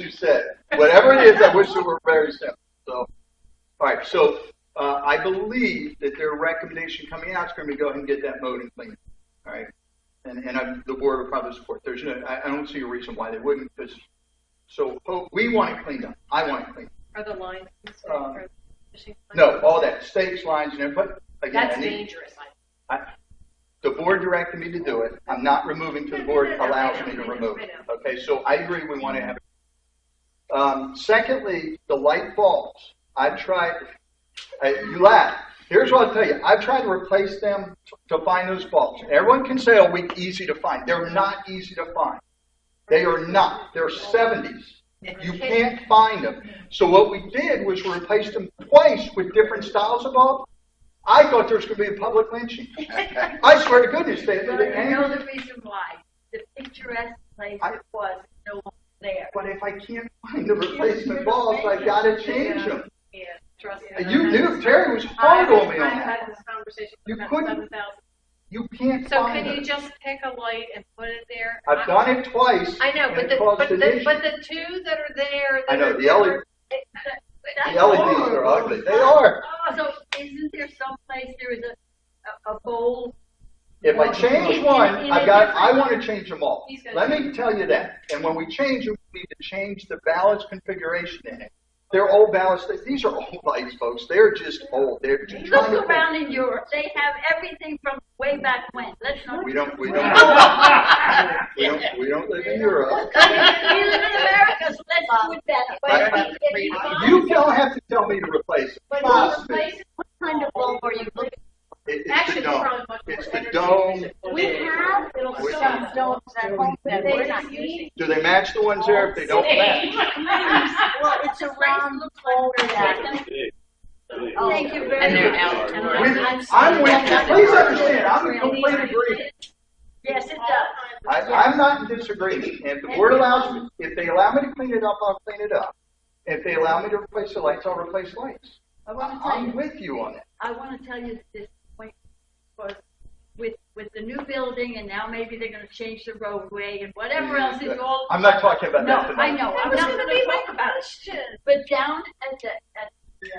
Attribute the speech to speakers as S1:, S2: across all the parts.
S1: you said. Whatever it is, I wish it were very simple. So, all right. So uh, I believe that their recommendation coming out is going to be go ahead and get that mowed and cleaned. All right. And, and I, the board would probably support. There's no, I, I don't see a reason why they wouldn't. Because so hope, we want it cleaned up. I want it cleaned.
S2: Are the lines concerned
S1: Um,
S2: for fishing?
S1: up. No, all that stakes, lines, and everything. But again,
S2: That's
S1: I need,
S2: dangerous. I-
S1: I, the board directed me to do it. I'm not removing till the board allows me to remove it. Okay, so I agree, we want to have. it. Um, secondly, the light bulbs. I've tried, uh, you laugh. Here's what I'll tell you. I've tried to replace them t- to find those bulbs. Everyone can say, oh, we, easy to find. They're not easy to find. They are not. They're seventies. You can't find them. So what we did was we replaced them twice with different styles of bulbs. I thought there was going to be a public lynching. I swear to goodness, they,
S3: But
S1: they,
S3: I know the reason why. The picturesque place
S1: I-
S3: it was, no one there.
S1: but if I can't find the replacement bulbs, I gotta change them.
S2: Yeah, trust me.
S1: And you knew, Terry was hard on me on that. You couldn't You can't
S2: So can you
S1: find them.
S2: just pick a light and put it there?
S1: I've done it twice.
S2: I know,
S1: and
S2: but
S1: it
S2: the,
S1: caused
S2: but
S1: an
S2: the,
S1: issue.
S2: but the two that are there.
S1: I
S2: that
S1: know,
S2: are-
S1: the E, LED
S2: it- that- that's
S1: The LEDs are
S2: horrible.
S1: ugly. They are.
S3: Oh, so isn't there someplace there is a, a, a bowl?
S1: If I
S3: Well,
S1: change
S3: in-
S1: one,
S3: in- in
S1: I
S3: a
S1: got,
S3: different-
S1: I wanna change them all.
S2: He's gonna
S1: Let me tell you that. And when we change them, we need to change the ballast configuration in it. They're old ballast, these are old lights, folks. They're just old. They're just
S3: Look
S1: trying to.
S3: around in Europe, they have everything from way back when, let's not.
S1: We don't, we don't, we don't, we don't live in Europe.
S3: We live in America, so let's do it better.
S1: Right.
S3: But if you find-
S1: You don't have to tell me to replace it.
S3: But
S1: Trust
S3: those
S1: me.
S3: places, what kind of bulb are you looking?
S1: It- It's the
S2: Actually, it's
S1: dome.
S2: probably much more
S1: It's the
S2: energy
S1: dome.
S2: efficient.
S4: We have little
S1: We-
S4: stuff, no, that we're not using.
S1: Do they match the ones there? If they don't match,
S4: Well, it's around the pole that. Oh.
S3: Thank you very much.
S2: And they're
S4: out.
S3: And
S1: We-
S3: I'm- I'm
S1: I'm
S3: sorry.
S1: with you. Please understand, I'm in complete agreement.
S3: Yes, it does.
S1: I, I'm not in disagreement. And if the board allows me, if they allow me to clean it up, I'll clean it up. If they allow me to replace the lights, I'll replace lights.
S3: I want to tell
S1: I'm
S3: you,
S1: with you on that.
S3: I want to tell you that this point was with, with the new building and now maybe they're going to change the roadway and whatever else is all.
S1: I'm not talking about
S3: No,
S1: that
S3: I
S1: tonight.
S3: know, I'm
S2: There's
S3: not
S2: gonna
S3: going
S2: be
S3: to talk about it. But down at the, at the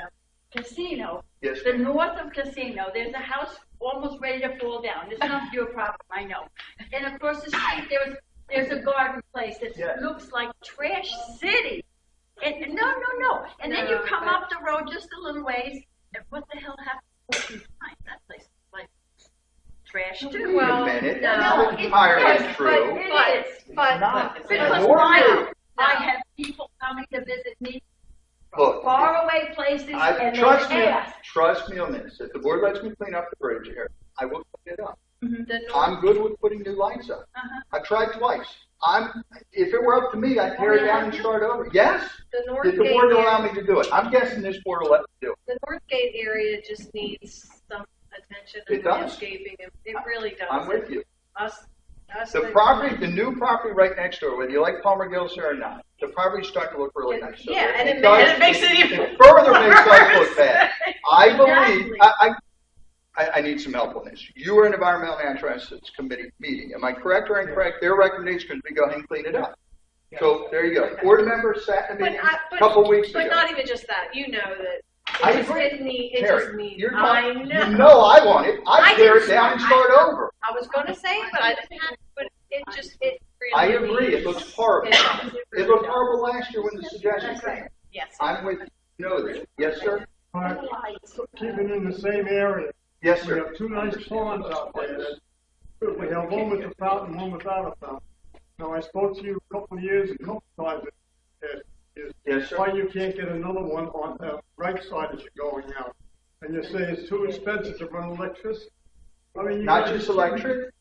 S3: casino,
S1: Yes,
S3: the north of casino, there's a house almost ready to fall down. It's not your problem, I know. And across the street, there's, there's a garden place that
S1: Yeah.
S3: looks like trash city. And, and no, no, no. And then you
S2: No,
S3: come
S2: but-
S3: up the road just a little ways, and what the hell happened? That place is like trash too.
S1: wait
S2: well,
S1: a minute.
S2: no,
S1: That's
S3: it's-
S1: entirely
S3: yes,
S1: true.
S3: It
S2: But,
S3: is.
S2: but,
S1: Not-
S2: but-
S1: It's
S3: Because
S1: horrible.
S3: now I have people coming to visit me
S1: Look.
S3: from faraway places
S1: I,
S3: and they
S1: trust me,
S3: ask.
S1: trust me on this. If the board lets me clean up the bridge here, I will clean it up.
S2: the north,
S1: I'm good with putting new lights up.
S3: Uh-huh.
S1: I've tried twice. I'm, if it were up to me, I'd tear it down and start over. Yes?
S2: the north
S1: Did the
S2: gate
S1: board allow
S2: area,
S1: me to do it? I'm guessing this board will let me do it.
S2: the north gate area just needs some attention
S1: It
S2: and
S1: does.
S2: landscaping. It, it really does.
S1: I'm with you.
S2: Us, us.
S1: The property, the new property right next door, whether you like Palmer Gills there or not, the property's starting to look really nice. So
S2: Yeah, and it ma-
S1: does-
S2: and it makes it even
S1: Further makes us
S2: worse.
S1: look bad. I believe,
S3: Exactly.
S1: I, I, I, I need some help on this. You were an environmental natural assets committee meeting. Am I correct or incorrect? Their recommendation is we go ahead and clean it up. So there you go. Board members sat in a
S2: But
S1: meeting
S2: I-
S1: a
S2: but-
S1: couple weeks ago.
S2: But not even just that, you know that.
S1: I
S2: It just
S1: agree.
S2: didn't need, it
S1: Terry,
S2: just need,
S1: you're not-
S2: I know.
S1: You know I want it.
S2: I
S1: I tear it
S2: didn't-
S1: down and start
S2: I-
S1: over.
S2: I was gonna say, but I didn't have, but it just, it really.
S1: I agree. It looks horrible.
S2: It
S1: It
S2: really
S1: looked
S2: does.
S1: horrible last year when the suggestion came.
S2: Yes.
S1: I'm with you. You know this. Yes, sir?
S5: But keeping in the same area,
S1: Yes,
S5: we
S1: sir.
S5: have two nice ponds out there. that- We have one with a fountain, one without a fountain. Now, I spoke to you a couple of years, a couple of times, uh, is
S1: Yes, sir.
S5: why you can't get another one on the right side as you're going out. And you say it's too expensive to run electricity. I mean, you
S1: Not
S5: guys-
S1: just electric.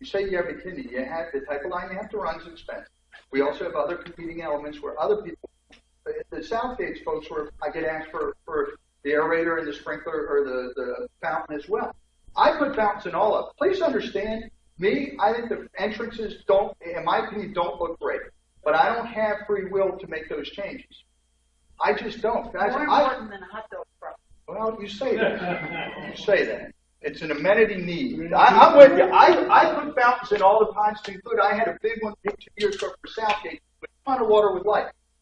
S1: You say you have a kidney. You have the type of line you have to run is expensive. We also have other competing elements where other people, the Southgate folks, where I get asked for, for the aerator and the sprinkler or the, the fountain as well. I put fountains in all of them. Please understand me. I think the entrances don't, in my opinion, don't look great. But I don't have free will to make those changes. I just don't, guys.
S3: More
S1: I,
S3: important than a hot dog truck.
S1: well, you say that. You say that. It's an amenity need. I, I'm with you. I, I put fountains in all the ponds to include, I had a big one two years ago for Southgate, with a ton of water with light.